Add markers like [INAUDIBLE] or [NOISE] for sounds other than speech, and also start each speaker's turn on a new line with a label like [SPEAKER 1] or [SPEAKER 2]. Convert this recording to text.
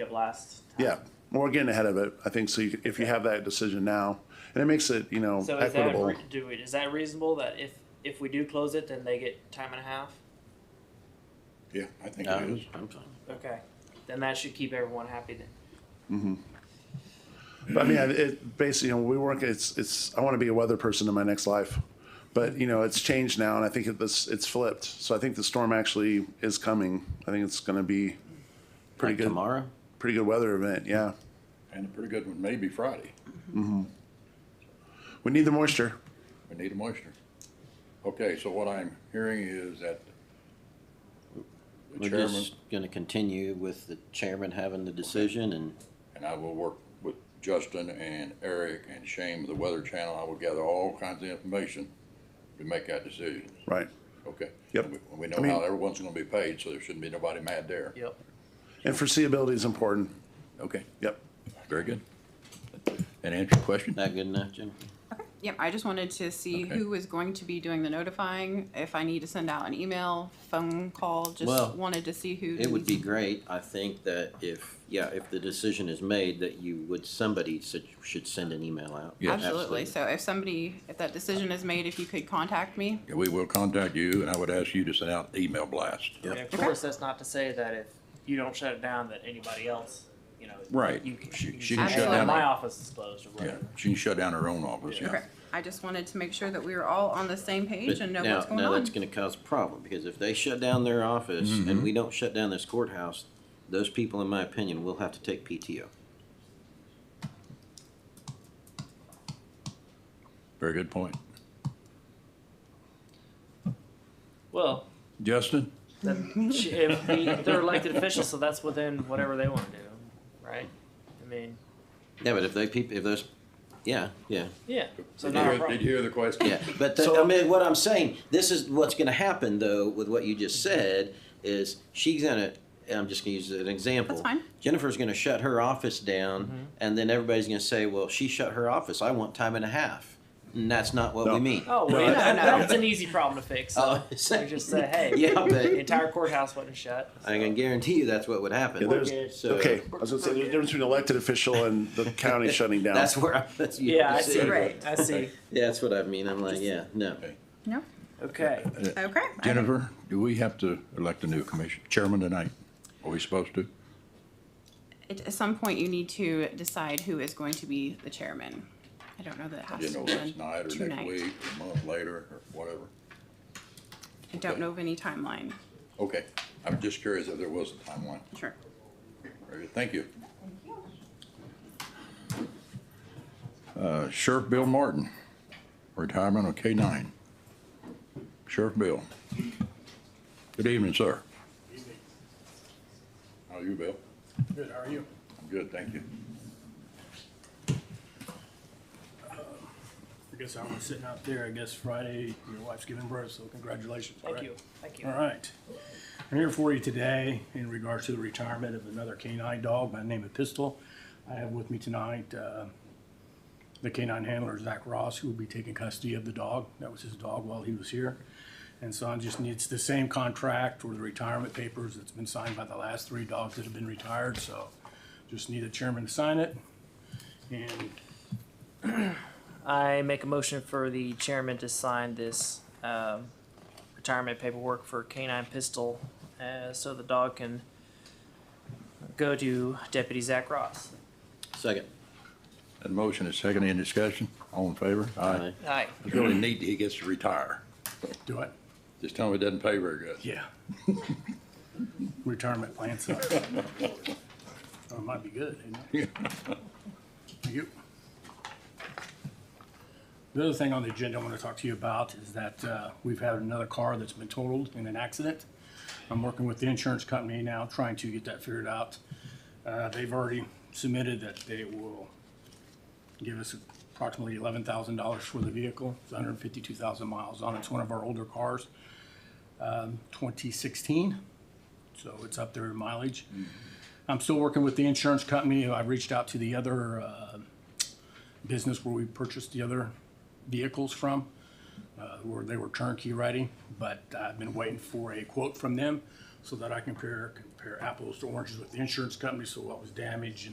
[SPEAKER 1] it last time.
[SPEAKER 2] Yeah, well, we're getting ahead of it, I think, so you- if you have that decision now, and it makes it, you know,
[SPEAKER 1] So is that,
[SPEAKER 2] equitable.
[SPEAKER 1] re- do we, is that reasonable that if, if we do close it, then they get time and a half?
[SPEAKER 3] Yeah, I think
[SPEAKER 4] No,
[SPEAKER 3] it is.
[SPEAKER 4] I'm fine.
[SPEAKER 1] Okay, then that should keep everyone happy then.
[SPEAKER 2] But I mean, I- it, basically, you know, we work, it's, it's, I want to be a weather person in my next life. But, you know, it's changed now, and I think it's, it's flipped, so I think the storm actually is coming. I think it's gonna be pretty
[SPEAKER 4] Like
[SPEAKER 2] good,
[SPEAKER 4] tomorrow?
[SPEAKER 2] pretty good weather event, yeah.
[SPEAKER 3] And a pretty good one, maybe Friday.
[SPEAKER 2] We need the moisture.
[SPEAKER 3] We need a moisture. Okay, so what I'm hearing is that the
[SPEAKER 4] We're
[SPEAKER 3] chairman,
[SPEAKER 4] just gonna continue with the chairman having the decision and
[SPEAKER 3] and I will work with Justin and Eric and Shane with the Weather Channel. I will gather all kinds of information to make that decision.
[SPEAKER 2] Right.
[SPEAKER 3] Okay?
[SPEAKER 2] Yep.
[SPEAKER 3] And we- We
[SPEAKER 2] I
[SPEAKER 3] know
[SPEAKER 2] mean-
[SPEAKER 3] how everyone's gonna be paid, so there shouldn't be nobody mad there.
[SPEAKER 1] Yep.
[SPEAKER 2] And foreseeability is important.
[SPEAKER 3] Okay,
[SPEAKER 2] Yep.
[SPEAKER 3] very good. And answer your question?
[SPEAKER 4] that good enough, Jim?
[SPEAKER 5] Yep, I just wanted to see
[SPEAKER 3] Okay.
[SPEAKER 5] who is going to be doing the notifying, if I need to send out an email, phone call,
[SPEAKER 4] Well,
[SPEAKER 5] just wanted to see who.
[SPEAKER 4] It would be
[SPEAKER 5] needs-
[SPEAKER 4] great, I think that if, yeah, if the decision is made, that you would, somebody should, should send an email out.
[SPEAKER 3] Yeah.
[SPEAKER 5] Absolutely, so if somebody, if that decision is made, if you could contact me,
[SPEAKER 3] Yeah, We will contact you, and I would ask you to send out email blast.
[SPEAKER 4] Yep.
[SPEAKER 1] And of course, that's not to say that if you don't shut it down, that anybody else, you know.
[SPEAKER 3] Right.
[SPEAKER 1] You can,
[SPEAKER 3] She-
[SPEAKER 1] you can
[SPEAKER 3] she
[SPEAKER 5] can
[SPEAKER 1] say,
[SPEAKER 5] shut
[SPEAKER 1] "Well,
[SPEAKER 5] down
[SPEAKER 1] My
[SPEAKER 3] her-
[SPEAKER 1] office is closed or
[SPEAKER 3] Yeah,
[SPEAKER 1] whatever.
[SPEAKER 3] she can shut down her own office, yeah.
[SPEAKER 5] okay, I just wanted to make sure that we were all on the same page
[SPEAKER 4] But
[SPEAKER 5] and know
[SPEAKER 4] now,
[SPEAKER 5] what's going
[SPEAKER 4] now
[SPEAKER 5] on.
[SPEAKER 4] that's gonna cause a problem, because if they shut down their office and we don't shut down this courthouse, those people, in my opinion, will have to take PTO.
[SPEAKER 3] Very good point.
[SPEAKER 1] Well,
[SPEAKER 3] Justin?
[SPEAKER 1] then she- if we- they're elected officials, so that's within whatever they want to do, right? I mean,
[SPEAKER 4] Yeah, but if they, peop- if those, yeah, yeah,
[SPEAKER 1] yeah, so
[SPEAKER 3] Did you
[SPEAKER 1] not a
[SPEAKER 3] hear- Did you
[SPEAKER 1] problem.
[SPEAKER 3] hear the question? [LAUGHS]
[SPEAKER 4] Yeah, but the, I mean, what I'm saying, this is what's going to happen though with what you just said is she's going to. I'm just going to use an example.
[SPEAKER 5] That's fine.
[SPEAKER 4] Jennifer's going to shut her office down, and then everybody's going to say, "Well, she shut her office. I want time and a half." And that's not what
[SPEAKER 2] No.
[SPEAKER 4] we mean.
[SPEAKER 1] Oh,
[SPEAKER 5] No,
[SPEAKER 1] well,
[SPEAKER 4] [LAUGHS]
[SPEAKER 1] that-
[SPEAKER 5] no, no.
[SPEAKER 1] that's [LAUGHS] an easy problem to fix.
[SPEAKER 4] Oh, [LAUGHS]
[SPEAKER 1] So we just [LAUGHS] say, hey,
[SPEAKER 4] yeah,
[SPEAKER 1] the
[SPEAKER 4] but
[SPEAKER 1] entire courthouse wasn't shut.
[SPEAKER 4] I can guarantee you that's what uh, would happen.
[SPEAKER 2] Yeah, there's-
[SPEAKER 1] good.
[SPEAKER 4] so
[SPEAKER 2] Okay, I was gonna say, there's a difference between elected official and the county shutting down.
[SPEAKER 4] That's where I, that's you
[SPEAKER 1] Yeah, I
[SPEAKER 4] see.
[SPEAKER 1] see.
[SPEAKER 5] Right.
[SPEAKER 1] I see.
[SPEAKER 4] Yeah, that's what I mean. I'm like, yeah, no.
[SPEAKER 5] No,
[SPEAKER 1] Okay.
[SPEAKER 5] okay. I-
[SPEAKER 3] Jennifer, do we have to elect a new commission, chairman tonight? Are we supposed to?
[SPEAKER 5] At at some point, you need to decide who is going to be the chairman. I don't know that it has
[SPEAKER 3] You
[SPEAKER 5] to
[SPEAKER 3] know,
[SPEAKER 5] be
[SPEAKER 3] that's
[SPEAKER 5] done
[SPEAKER 3] night or next
[SPEAKER 5] tonight.
[SPEAKER 3] week, or a month later, or whatever.
[SPEAKER 5] I don't know of any timeline,
[SPEAKER 3] Okay, I'm just curious if there was a timeline.
[SPEAKER 5] sure.
[SPEAKER 3] Very good. Thank you. Uh, Sheriff Bill Martin, retirement of K nine. Sheriff Bill. Good evening, sir. How are you, Bill?
[SPEAKER 6] Good, how are you?
[SPEAKER 3] I'm good, thank you.
[SPEAKER 6] I guess I was sitting out there, I guess Friday, your wife's giving birth, so congratulations.
[SPEAKER 1] Thank
[SPEAKER 6] alright?
[SPEAKER 1] you. Thank you.
[SPEAKER 6] All right. I'm here for you today in regards to the retirement of another canine dog by the name of Pistol. I have with me tonight, uh, the canine handler, Zach Ross, who will be taking custody of the dog. That was his dog while he was here. And so I just needs the same contract or the retirement papers that's been signed by the last three dogs that have been retired, so just need the chairman to sign it. And
[SPEAKER 1] I make a motion for the chairman to sign this um, retirement paperwork for Canine Pistol, uh, so the dog can go to Deputy Zach Ross.
[SPEAKER 4] Second.
[SPEAKER 3] That motion is second in discussion. All in favor?
[SPEAKER 4] Aye.
[SPEAKER 1] Aye.
[SPEAKER 3] It's really neat that he gets to retire.
[SPEAKER 6] do it.
[SPEAKER 3] Just tell him it doesn't pay very [LAUGHS] good.
[SPEAKER 6] Yeah. Retirement plan sucks. Or it might be good, you know? Thank you. The other thing on the agenda I want to talk to you about is that uh, we've had another car that's been totaled in an accident. I'm working with the insurance company now, trying to get that figured out. Uh, They've already submitted that they will give us approximately eleven thousand dollars for the vehicle. It's hundred and fifty-two thousand miles on it. It's one of our older cars. 2016, so it's up there in mileage. I'm still working with the insurance company. I reached out to the other uh, business where we purchased the other vehicles from, uh, where they were turnkey ready, but I've been waiting for a quote from them so that I can compare, compare apples to oranges with the insurance company, so what was damaged and